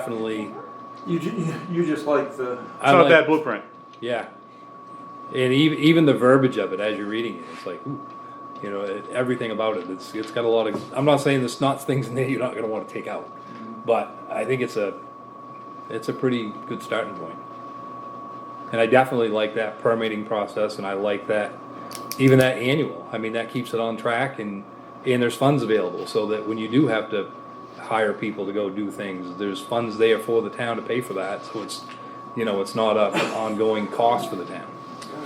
definitely, You, ju- you just like the, It's I not a bad like, blueprint. yeah. And even, even the verbiage of it as you're reading it, it's like, ooh, you know, it- everything about it, it's, it's got a lot of, I'm not saying there's not things in there you're not gonna wanna take out. But I think it's a, it's a pretty good starting point. And I definitely like that permitting process and I like that, even that annual, I mean, that keeps it on track and, and there's funds available so that when you do have to hire people to go do things, there's funds there for the town to pay for that, so it's, you know, it's not a ongoing cost for the town,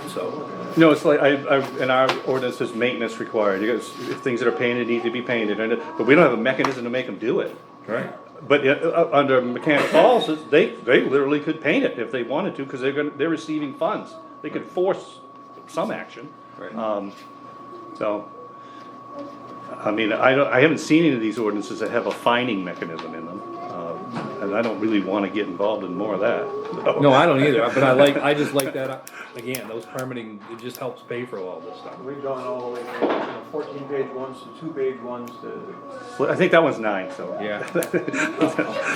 so. No, it's like, I, I, in our ordinance, says maintenance required, you guys, things that are painted need to be painted, and, it- but we don't have a mechanism to make them do it. Right. But, uh, uh, under Mechanic Falls, it's- they, they literally could paint it if they wanted to, cause they're gonna, they're receiving funds, they could force some action. Right. Um, so, I mean, I don't, I haven't seen any of these ordinances that have a fining mechanism in them, uh, and I don't really wanna get involved in more of that. so. No, I don't either, but I like, I just like that, again, those permitting, it just helps pay for all this stuff. we've gone all the way from you know, fourteen page ones to two page ones to. Well, I think that one's nine, so. Yeah.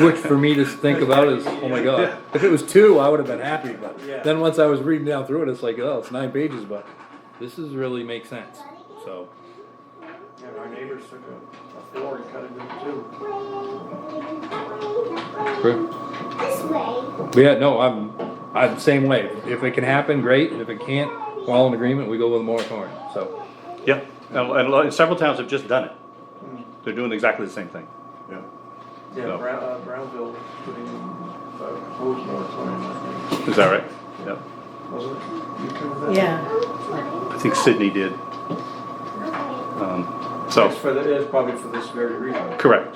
Which for me to think about is, oh my god, if it was two, I would have been happy, but Yeah. then once I was reading down through it, it's like, oh, it's nine pages, but this is really makes sense, so. And our neighbors took a, a floor and cut it into two. This way. But yeah, no, I'm, I'm the same way, if it can happen, great, and if it can't, we're all in agreement, we go with a moratorium, so. Yeah, and, and a lot- and several towns have just done it. They're doing exactly the same thing. Yeah. Yeah, No. Brown, uh, Brownville putting a proposed moratorium, I Is that right? Yeah. think, wasn't it? You covered that? Yeah, I think Sydney did, Okay. um, It's so, for, the- it's probably for this very reason, correct.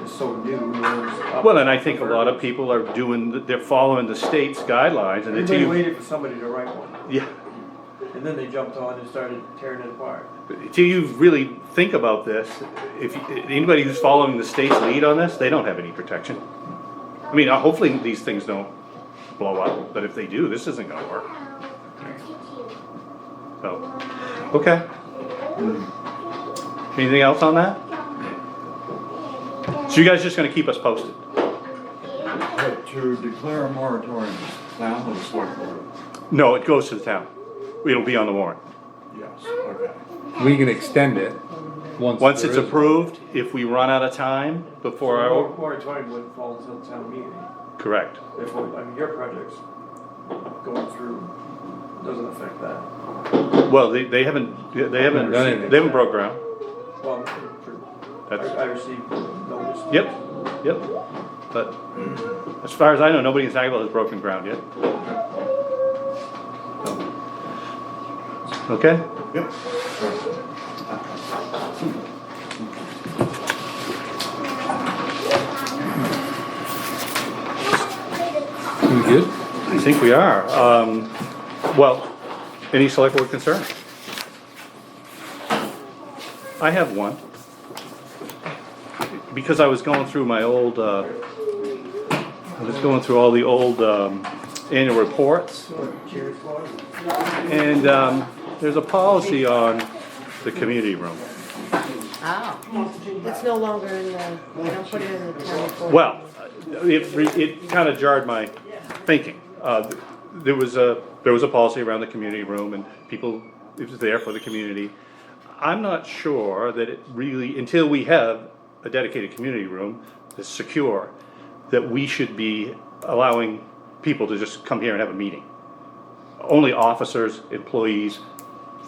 it's so new. Well, Well, and I think a lot of people are doing, they're following the state's guidelines and Everybody until you, waited for somebody to write one, yeah. and then they jumped on and started tearing it apart. Until you really think about this, if, you- anybody who's following the state's lead on this, they don't have any protection. I mean, uh, hopefully these things don't blow up, but if they do, this isn't gonna work, so, okay. Anything else on that? So you guys just gonna keep us posted? But to declare a moratorium, town or select board? No, it goes to the town. It'll be on the warrant. Yes, okay. We can extend it once. Once there it's is- approved, if we run out of time before Mor- our, Moratorium wouldn't fall until town meeting, correct. if, I mean, your project's going through, doesn't affect that. Well, they, they haven't, they haven't, Done anything. they haven't broke ground. Well, for- I That's- I received notice. Yep, yep. But as far as I know, nobody in Sagable has broken ground yet. Okay? Yep. We good? I think we are. Um, well, any select board concern? I have one. Because I was going through my old, uh, I was going through all the old, um, annual reports. Cheers, Floyd. And, um, there's a policy on the community room. oh, it's no longer in the, they don't put it in the town report. Well, it, re- it kind of jarred my thinking. Uh, There was a, there was a policy around the community room and people, it was there for the community. I'm not sure that it really, until we have a dedicated community room that's secure, that we should be allowing people to just come here and have a meeting. Only officers, employees,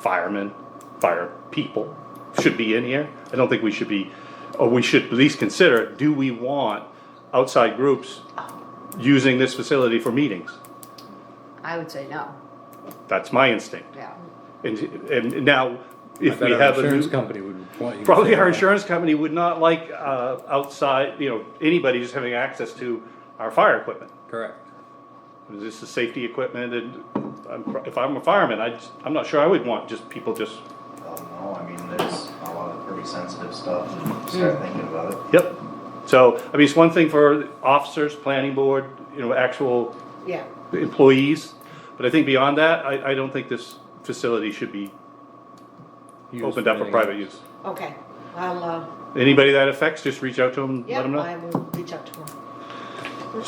firemen, fire people should be in here. I don't think we should be, or we should at least consider, do we want outside groups using this facility for meetings? I would say no, That's my instinct. yeah. And, and I now, if bet we our have a Insurance new, company would want you. to probably say our that. insurance company would not like, uh, outside, you know, anybody just having access to our fire equipment. Correct. This is safety equipment and I'm- if I'm a fireman, I, just- I'm not sure I would want just people just, don't know, I mean, there's a lot of pretty sensitive stuff, and start thinking about it. yep. So, I mean, it's one thing for officers, planning board, you know, actual Yeah, employees. But I think beyond that, I, I don't think this facility should be Used opened up for anything private else. use. okay, I'll, uh, Anybody that affects, just reach out to them, yeah, let them know. I will reach out to him.